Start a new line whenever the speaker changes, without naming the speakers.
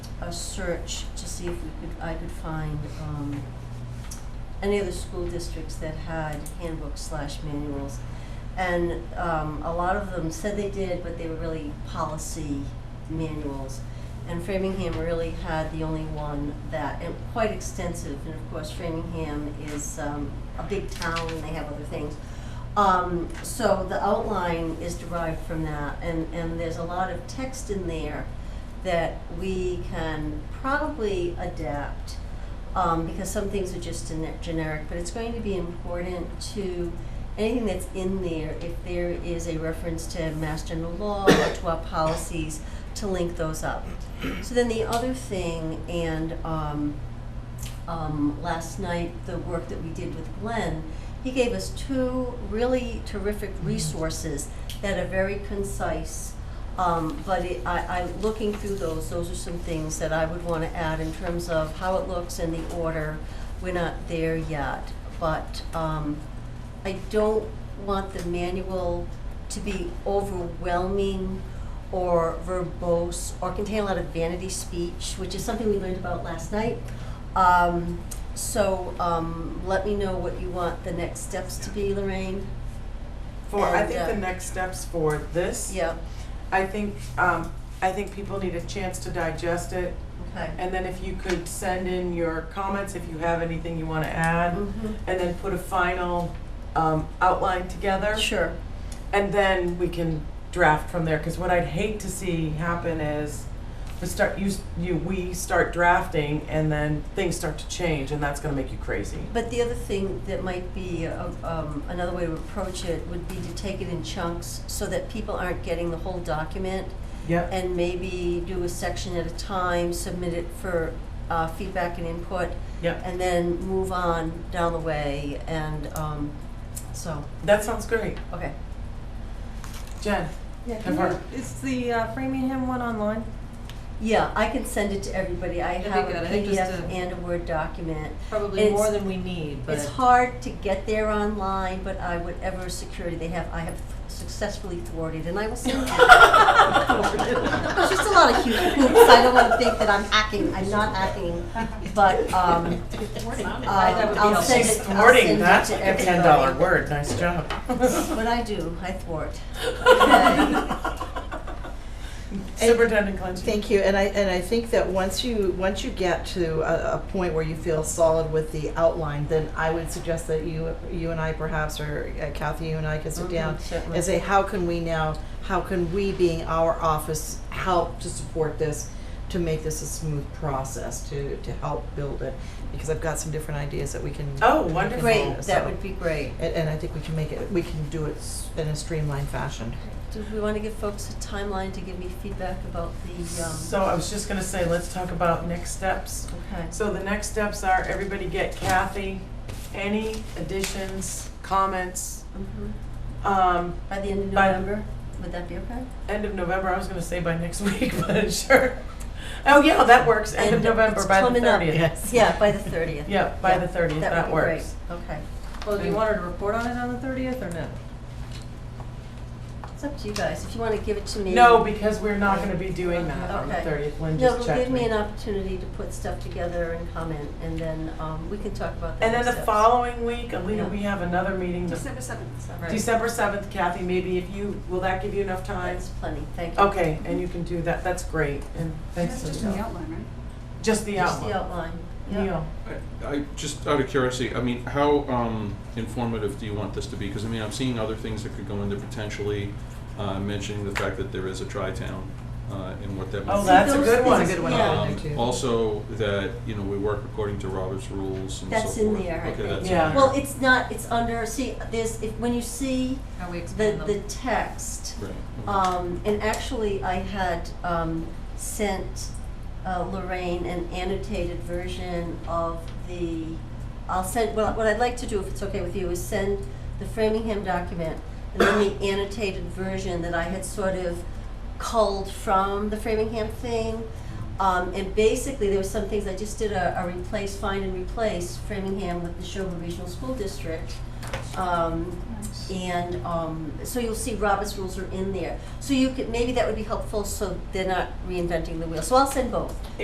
a search to see if we could, I could find, um, any other school districts that had handbooks slash manuals. And, um, a lot of them said they did, but they were really policy manuals. And Framingham really had the only one that, and quite extensive, and of course Framingham is, um, a big town, and they have other things. Um, so the outline is derived from that, and, and there's a lot of text in there that we can probably adapt, um, because some things are just gene- generic, but it's going to be important to anything that's in there, if there is a reference to Mass General Law or to our policies, to link those up. So then the other thing, and, um, um, last night, the work that we did with Glenn, he gave us two really terrific resources that are very concise. Um, but it, I, I, looking through those, those are some things that I would wanna add in terms of how it looks and the order. We're not there yet, but, um, I don't want the manual to be overwhelming or verbose or contain a lot of vanity speech, which is something we learned about last night. Um, so, um, let me know what you want the next steps to be, Lorraine.
For, I
And,
think
uh,
the next steps for this,
Yeah,
I think, um, I think people need a chance to digest it.
okay.
And then if you could send in your comments, if you have anything you wanna add,
Mhm.
and then put a final, um, outline together.
Sure,
And then we can draft from there, cause what I'd hate to see happen is we start, you, s- you, we start drafting and then things start to change and that's gonna make you crazy.
but the other thing that might be, uh, um, another way to approach it would be to take it in chunks so that people aren't getting the whole document
Yep.
and maybe do a section at a time, submit it for, uh, feedback and input,
Yep,
and then move on down the way and, um, so,
that sounds great.
okay.
Jen?
Yeah,
Have
can
her-
you, is the uh, Framingham one online?
Yeah, I can send it to everybody. I
That'd be
have a
good. I think
PDF
just uh, a-
and a Word document.
Probably
It's-
more than we need, but
It's hard to get there online, but I, whatever security they have, I have successfully thwarted, and I will send it. There's just a lot of huge hoops. I don't want to think that I'm hacking. I'm not hacking, but, um, uh,
That would be
I'll
helpful.
send
She's
it, I'll
thwarting,
send it
that's
to
like a
everybody.
ten dollar word, nice job.
What I do, I thwart.
Superintendent Clancy.
Thank you, and I, and I think that once you, once you get to a, a point where you feel solid with the outline, then I would suggest that you, you and I perhaps, or uh, Kathy, you and I could sit
Mm-hmm.
down
Certainly.
and say, how can we now, how can we, being our office, help to support this, to make this a smooth process, to, to help build it? Because I've got some different ideas that we can.
Oh,
we can
wonderful.
Great, that
so-
would be great.
And, and I think we can make it, we can do it s- in a streamlined fashion.
Do we want to give folks a timeline to give me feedback about the, um,
So I was just gonna say, let's talk about next steps.
okay?
So the next steps are everybody get Kathy, any additions, comments,
Mhm.
um,
By the end of
By-
November, would that be okay?
end of November, I was gonna say by next week, but sure. Oh, yeah, that works, end of
End of-
November,
it's
by the
coming up.
thirtieth.
Yeah, by the thirtieth.
Yeah, by the thirtieth, that
would be
works.
great. Okay,
Well, do you want her to report on it on the thirtieth or no?
it's up to you guys, if you wanna give it to me.
No, because we're not gonna be doing that on the
Okay.
thirtieth, Lynn
No,
just
but
checked
give me an opportunity to put stuff together and comment, and then, um, we can talk about that.
And then the following week,
Yeah.
Alita, we have another meeting, the
December seventh, sorry.
Right.
December seventh, Kathy, maybe if you, will that give you enough time?
That's plenty, thank you.
Okay, and you can do that, that's great, and thanks.
That's just
Lisa.
the outline, right?
Just the
Just the
outline.
outline, yeah.
Neil,
I- I, just out of curiosity, I mean, how um, informative do you want this to be? Because I mean, I'm seeing other things that could go into potentially uh, mentioning the fact that there is a tri-town uh, and what that might
oh,
mean.
that's a
those
good
things-
one.
That's a good one.
Yeah.
there too.
Um, Also, that, you know, we work according to Robert's rules and so forth.
That's in there, I
Okay,
think.
that's in
Yeah.
there.
Well, it's not, it's under, see, there's, if, when you see
how we
the,
expand them.
the text,
Right, okay.
Um, and actually, I had, um, sent uh, Lorraine an annotated version of the, I'll send, well, what I'd like to do, if it's okay with you, is send the Framingham document and then the annotated version that I had sort of culled from the Framingham thing. Um, and basically, there were some things, I just did a, a replace, find and replace Framingham with the Neshoba Regional School District. Um, and um, so you'll see Robert's rules are in there. So you could, maybe that would be helpful, so they're not reinventing the wheel. So I'll send both.